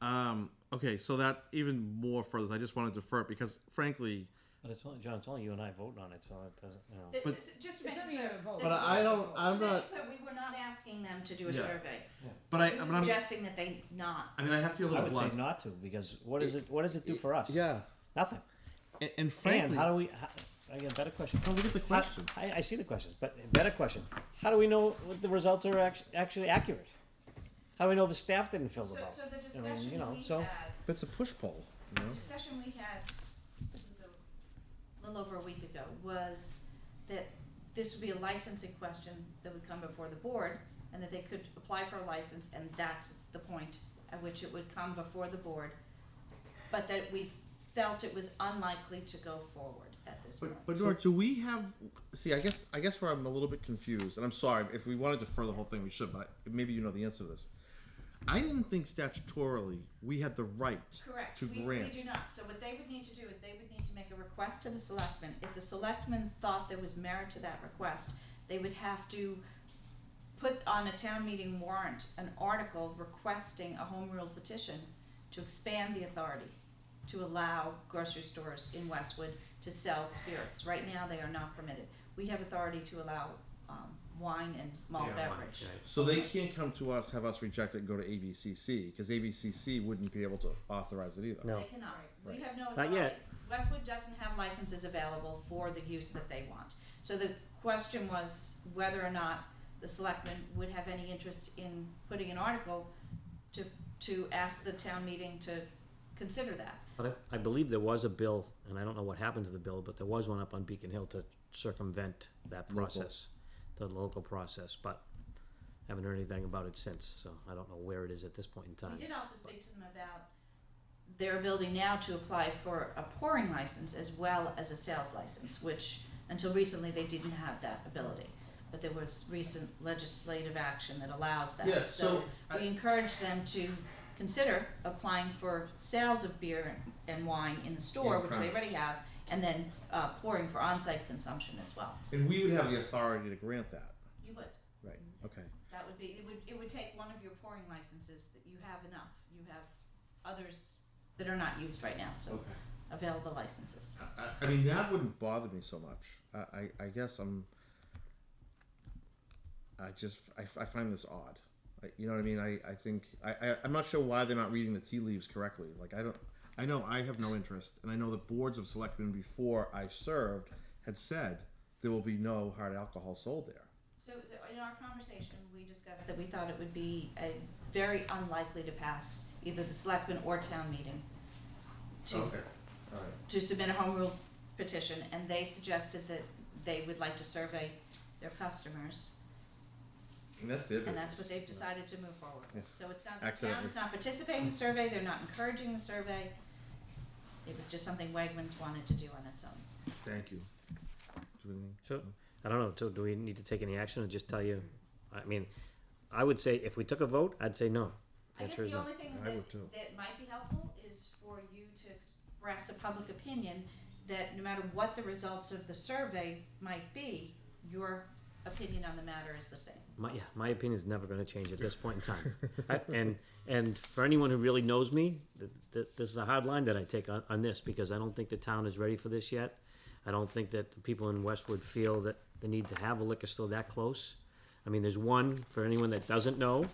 Um, okay, so that even more further. I just wanted to defer it because, frankly, But it's only, John, it's only you and I voting on it, so it doesn't, you know. This But- is- just to It's make not it even clear. a vote. but I, I don't. I'm To make not. it clear, we were not asking them to do a Yeah. survey. But I. We But were I'm, suggesting that they not. I mean, I have to be a I little would blunt. say not to because what does it what does it do for us? Yeah. Nothing. And, and And frankly, how do we? How, again, better question. No, look at the How- question. I, I see the questions, but better question. How do we know what the results are act- actually accurate? How do we know the staff didn't fill So, them out? so the I mean, discussion you know, we so had, it's a push poll. You know? the discussion we had, it was a little over a week ago, was that this would be a licensing question that would come before the board, and that they could apply for a license, and that's the point at which it would come before the board, but that we felt it was unlikely to go forward at this point. But, but Nora, do we have? See, I guess I guess where I'm a little bit confused, and I'm sorry if we wanted to defer the whole thing, we should. But I, maybe you know the answer to this. I didn't think statutorily we had the right Correct, to we, we grant. do not, so what they would need to do is they would need to make a request to the selectmen, if the selectmen thought there was merit to that request, they would have to put on a town meeting warrant, an article requesting a home rule petition to expand the authority to allow grocery stores in Westwood to sell spirits, right now they are not permitted, we have authority to allow, um, wine and malt Yeah, one, beverage. right. So they can't come to us, have us reject it, and go to ABCC because ABCC wouldn't be able to authorize it either. No. They cannot. We Right. have no Not authority. yet. Westwood doesn't have licenses available for the use that they want. So the question was whether or not the selectmen would have any interest in putting an article to, to ask the town meeting to consider that. But I, I believe there was a bill, and I don't know what happened to the bill, but there was one up on Beacon Hill to circumvent that Local. process, the local process. But haven't heard anything about it since, so I don't know where it is at this point in time. We did also speak to them about their ability now to apply for a pouring license as well as a sales license, which until recently they didn't have that ability. But there was recent legislative action that allows that. Yeah, so I- We encourage them to consider applying for sales of beer and wine in the store, In which they already premise. have, and then uh, pouring for on-site consumption as well. And we would have the authority to grant that. You would. Right. Okay. That would be, it would, it would take one of your pouring licenses that you have enough, you have others that are not used right now, so available licenses. I- I, I mean, that wouldn't bother me so much. I, I, I guess I'm. I just I, I find this odd. I, you know what I mean? I, I think I, I I'm not sure why they're not reading the tea leaves correctly. Like I don't I know I have no interest, and I know the boards of selectmen before I served had said there will be no hard alcohol sold there. So th- in our conversation, we discussed that we thought it would be a very unlikely to pass either the selectmen or town meeting to, All right. to submit a home rule petition, and they suggested that they would like to survey their customers, And that's it. and that's what they've decided to move forward. Yeah. So it's not, the town is Accidentally. not participating in the survey, they're not encouraging the survey. It was just something Wegmans wanted to do on its own. Thank you. Do anything? So, I don't know, so do we need to take any action or just tell you? I mean, I would say if we took a vote, I'd say no. I guess Answer is the no. only thing I that, would too. that might be helpful is for you to express a public opinion that no matter what the results of the survey might be, your opinion on the matter is the same. My, yeah, my opinion's never gonna change at this point in time. I- And, and for anyone who really knows me, th- th- this is a hard line that I take on, on this, because I don't think the town is ready for this yet. I don't think that the people in Westwood feel that the need to have a liquor store that close. I mean, there's one, for anyone that doesn't know,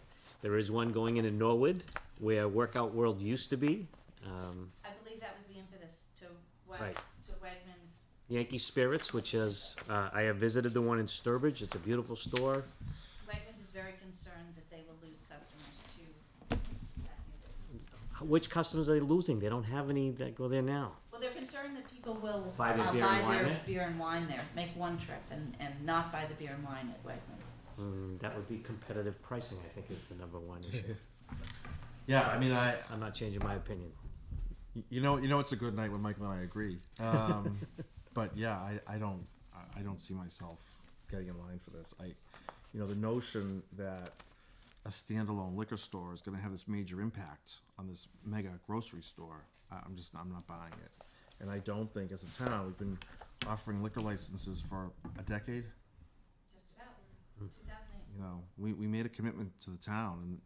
there is one going in in Norwood, where Workout World used to be. Um, I believe that was the impetus to West, Right. to Wegmans. Yankee Spirits, which is, uh, I have visited the one in Sturbridge. It's a beautiful store. Wegmans is very concerned that they will lose customers to that new business. Which customers are they losing? They don't have any that go there now. Well, they're concerned that people will Buy their uh, beer and buy wine their there? beer and wine there, make one trip and, and not buy the beer and wine at Wegmans. Mm, that would be competitive pricing, I think, is the number one issue. Yeah, I mean, I, I'm not changing my opinion. You know, you know, it's a good night when Michael and I agree. Um, but yeah, I, I don't, I- I don't see myself getting in line for this. I, you know, the notion that a standalone liquor store is going to have this major impact on this mega grocery store, I- I'm just, I'm not buying it. And I don't think, as a town, we've been offering liquor licenses for a decade. Hmm. Just about, two thousand eight. You know, we, we made a commitment to the town, and